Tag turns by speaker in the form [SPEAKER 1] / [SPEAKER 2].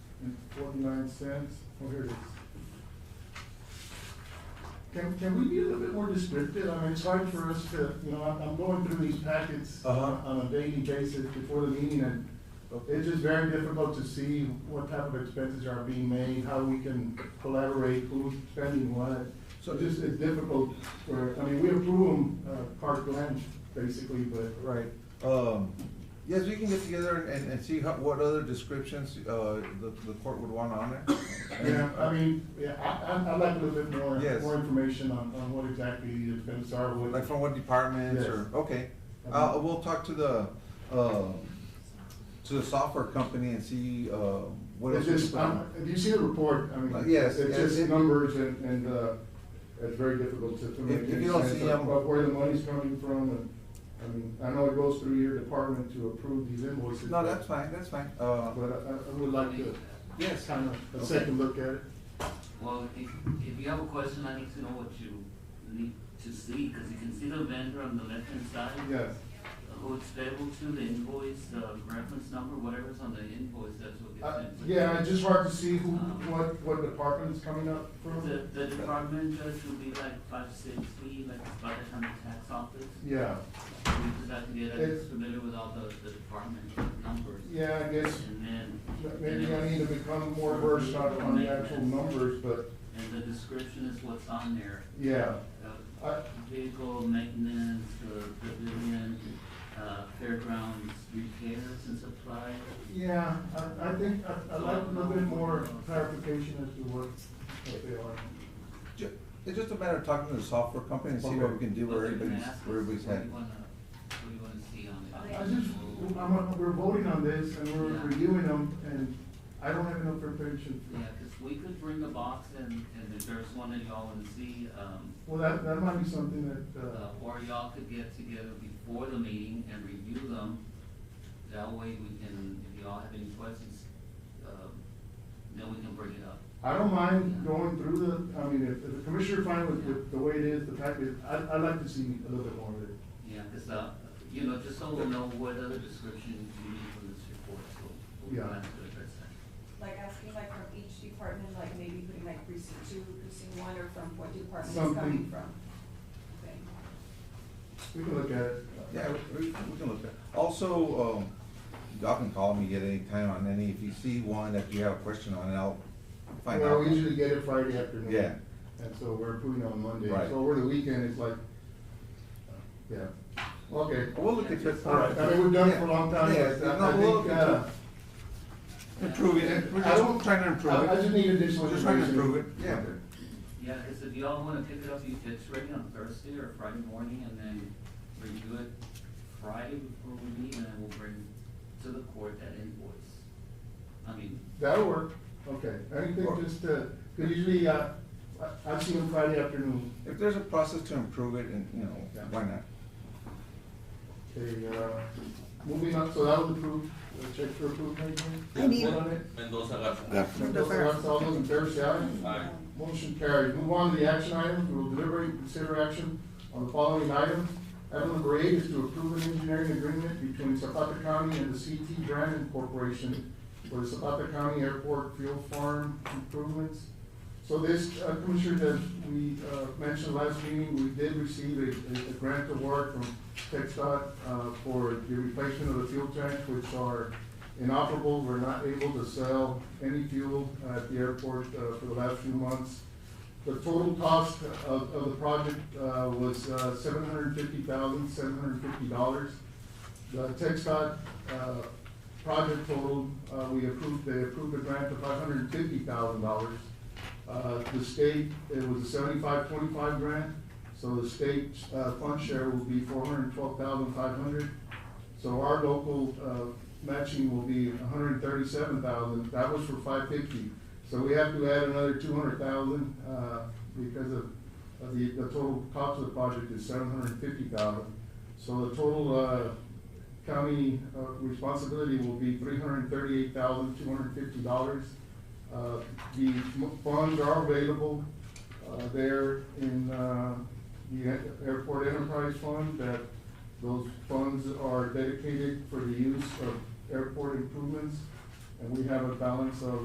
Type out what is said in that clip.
[SPEAKER 1] and forty-nine cents. Oh, here it is. Can, can we be a little bit more descriptive? I mean, it's hard for us to, you know, I'm, I'm going through these packets
[SPEAKER 2] Uh-huh.
[SPEAKER 1] on a daily basis before the meeting, and it's just very difficult to see what type of expenses are being made, how we can collaborate, who's spending what. So just, it's difficult for, I mean, we approve them, uh, carte blanche, basically, but
[SPEAKER 2] Right, um, yes, we can get together and, and see how, what other descriptions, uh, the, the court would want on there.
[SPEAKER 1] Yeah, I mean, yeah, I, I, I'd like a little bit more,
[SPEAKER 2] Yes.
[SPEAKER 1] more information on, on what exactly the expenses are, what.
[SPEAKER 2] Like from what departments or,
[SPEAKER 1] Yes.
[SPEAKER 2] okay, uh, we'll talk to the, um, to the software company and see, uh, what else.
[SPEAKER 1] It's
[SPEAKER 2] we
[SPEAKER 1] just,
[SPEAKER 2] can put on
[SPEAKER 1] um, if you see the report, I
[SPEAKER 2] Uh,
[SPEAKER 1] mean,
[SPEAKER 2] yes,
[SPEAKER 1] it's
[SPEAKER 2] yes, it-
[SPEAKER 1] just numbers and, and, uh, it's very difficult to, to
[SPEAKER 2] If-
[SPEAKER 1] make
[SPEAKER 2] if
[SPEAKER 1] any
[SPEAKER 2] you don't
[SPEAKER 1] sense
[SPEAKER 2] see
[SPEAKER 1] of
[SPEAKER 2] them-
[SPEAKER 1] of where the money's coming from, and, I mean, I know it goes through your department to approve these invoices.
[SPEAKER 2] No,
[SPEAKER 1] but-
[SPEAKER 2] that's fine, that's fine, uh,
[SPEAKER 1] But I, I would like to,
[SPEAKER 2] yes,
[SPEAKER 1] kind of, a second look at it.
[SPEAKER 3] Well, if, if you have a question, I need to know what you need to see, because you can see the vendor on the left-hand side.
[SPEAKER 1] Yes,
[SPEAKER 3] Who it's payable to, the invoice, the reference number, whatever's on the invoice, that's what gets
[SPEAKER 1] I,
[SPEAKER 3] sent. to
[SPEAKER 1] Uh, yeah,
[SPEAKER 3] you.
[SPEAKER 1] it's just hard to see who, what, what department is coming up from.
[SPEAKER 3] The, the department judge will be like five, six, we, like, by the time the tax office,
[SPEAKER 1] Yeah,
[SPEAKER 3] because I can get
[SPEAKER 1] It's-
[SPEAKER 3] us familiar with all the, the department numbers.
[SPEAKER 1] yeah, I guess
[SPEAKER 3] And then,
[SPEAKER 1] Maybe I need to become more versed on, on the actual numbers, but,
[SPEAKER 3] and the description is what's on there.
[SPEAKER 1] yeah.
[SPEAKER 3] Uh,
[SPEAKER 1] I,
[SPEAKER 3] vehicle maintenance, uh, pavilion, uh, fairgrounds, repairs and supplies.
[SPEAKER 1] yeah, I, I think, I, I'd like a little bit more clarification as to what, what they are.
[SPEAKER 2] ju- it's just a matter of talking to the software company and see what we can do where
[SPEAKER 3] Those are the
[SPEAKER 2] everybody's,
[SPEAKER 3] masses.
[SPEAKER 2] where everybody's
[SPEAKER 3] What do
[SPEAKER 2] headed.
[SPEAKER 3] you wanna, what do you wanna see on it?
[SPEAKER 1] I just, I'm, we're voting on this and we're reviewing them, and I don't have enough preparation.
[SPEAKER 3] Yeah, cause we could bring a box and, and if there's one that y'all wanna see, um,
[SPEAKER 1] Well, that, that might be something that, uh,
[SPEAKER 3] uh, or y'all could get together before the meeting and review them. That way we can, if y'all have any questions, um, then we can bring it up.
[SPEAKER 1] I don't mind going through the, I mean, if, if the commissioner fine with, with the way it is, the package, I, I'd like to see a little bit more of it.
[SPEAKER 3] Yeah, because, uh, you know, just so we'll know what other description you need from this report, so we'll
[SPEAKER 1] Yeah.
[SPEAKER 3] plan to address that.
[SPEAKER 4] Like asking like from each department, like maybe putting like precinct two, precinct one, or from what department it's
[SPEAKER 1] Something.
[SPEAKER 4] coming from? Okay.
[SPEAKER 1] We can look at it.
[SPEAKER 2] Yeah, we, we can look at, also, um, y'all can call me at any time on any, if you see one that you have a question on, I'll find
[SPEAKER 1] Well,
[SPEAKER 2] out.
[SPEAKER 1] we usually get it Friday afternoon.
[SPEAKER 2] Yeah.
[SPEAKER 1] And so we're approving on Monday,
[SPEAKER 2] Right.
[SPEAKER 1] so over the weekend, it's like, yeah, okay.
[SPEAKER 2] We'll look at it.
[SPEAKER 1] All right, I mean, we've done it for a long time,
[SPEAKER 2] Yeah,
[SPEAKER 1] but I
[SPEAKER 2] no,
[SPEAKER 1] I
[SPEAKER 2] we'll look
[SPEAKER 1] think,
[SPEAKER 2] into
[SPEAKER 1] uh.
[SPEAKER 2] it. Improving it, we're
[SPEAKER 1] I don't-
[SPEAKER 2] just trying to
[SPEAKER 1] I- I
[SPEAKER 2] improve
[SPEAKER 1] just
[SPEAKER 2] it.
[SPEAKER 1] need additional.
[SPEAKER 2] We're just trying to
[SPEAKER 1] information.
[SPEAKER 2] improve it, yeah.
[SPEAKER 1] Okay.
[SPEAKER 3] Yeah, because if y'all want to pick it up, you, it's ready on Thursday or Friday morning, and then review it Friday before we meet, and then we'll bring to the court that invoice. I mean,
[SPEAKER 1] That'll work, okay,
[SPEAKER 2] Or-
[SPEAKER 1] anything just, uh, cause usually, uh, I, I see them Friday afternoon.
[SPEAKER 2] If there's a process to improve it, and, you know,
[SPEAKER 1] Yeah.
[SPEAKER 2] why not?
[SPEAKER 1] Okay, uh, moving on, so that was approved, Uh, check for approval, maybe?
[SPEAKER 5] I need-
[SPEAKER 1] Vote on it?
[SPEAKER 6] Mendoza Garza.
[SPEAKER 1] And those are all those in favor, say aye.
[SPEAKER 6] Aye.
[SPEAKER 1] Motion carried. Move on to the action items. We will deliberate and consider action on the following items. Item number eight is to approve an engineering agreement between Zapata County and the CT Brandon Corporation for the Zapata County Airport Fuel Farm improvements. So this, uh, Commissioner, that we, uh, mentioned last meeting, we did receive a, a- a grant award from TechDOT, uh, for the replacement of the fuel tanks, which are inoperable. We're not able to sell any fuel at the airport, uh, for the last few months. The total cost of, of the project, uh, was, uh, seven hundred fifty thousand, seven hundred fifty dollars. The TechStot, uh, project total, uh, we approved, they approved a grant of five hundred and fifty thousand dollars. Uh, the state, it was a seventy-five, twenty-five grant, so the state, uh, fund share will be four hundred and twelve thousand, five hundred. So our local, uh, matching will be $137,000. that was for five fifty. So we have to add another two hundred thousand, uh, because of, of the, the total cost of the project is seven hundred and fifty thousand. So the total, uh, county, uh, responsibility will be three hundred and thirty-eight thousand, two hundred and fifty dollars. Uh, the m- funds are available, uh, there in, uh, the A- Airport Enterprise Fund that those funds are dedicated for the use of airport improvements, and we have a balance of